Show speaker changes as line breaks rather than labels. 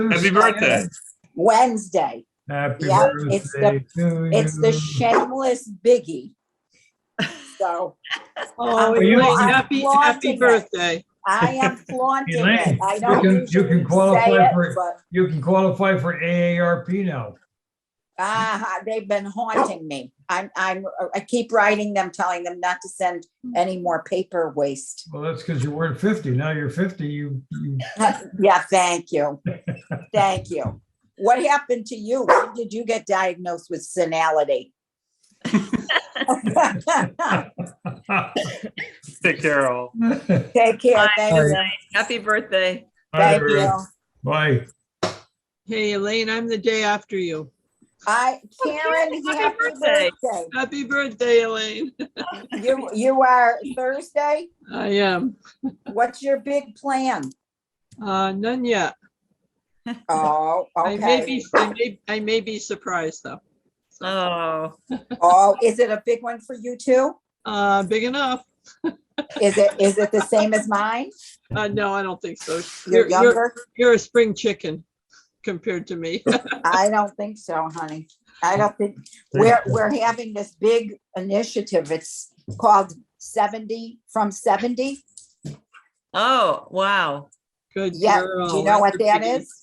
Happy birthday.
Wednesday.
Happy
Yeah, it's the-
birthday to you.
It's the shameless biggie. So
Oh,
Are you-
Elaine, happy, happy
Flaunting it.
birthday.
I am flaunting
Elaine,
it. I
you
don't
can- you can
usually say
qualify
it,
for-
but
You can qualify for AARP now.
ah, they've been haunting me. I'm, I'm, I keep writing them, telling them not to send any more paper waste.
Well, that's because you weren't 50. Now you're 50, you, you
Yeah, thank you. Thank you. What happened to you? When did you get diagnosed with senility?
Take care, all.
Take care. Thank you.
Happy birthday.
Thank you.
Bye.
Hey, Elaine, I'm the day after you.
I,
Oh,
Karen,
Karen, happy
happy
birthday.
birthday.
Happy birthday, Elaine.
You, you are Thursday?
I am.
What's your big plan?
Uh, none yet.
Oh,
I may
okay.
be, I may, I may be surprised though.
Oh,
Oh, is it a big one for you too?
Uh, big enough.
Is it, is it the same as mine?
Uh, no, I don't think so.
You're younger?
You're a spring chicken compared to me.
I don't think so, honey. I don't think, we're, we're having this big initiative. It's called seventy from seventy.
oh, wow.
Good
Yeah,
girl.
do you know what
That's a
that
biggie.
is?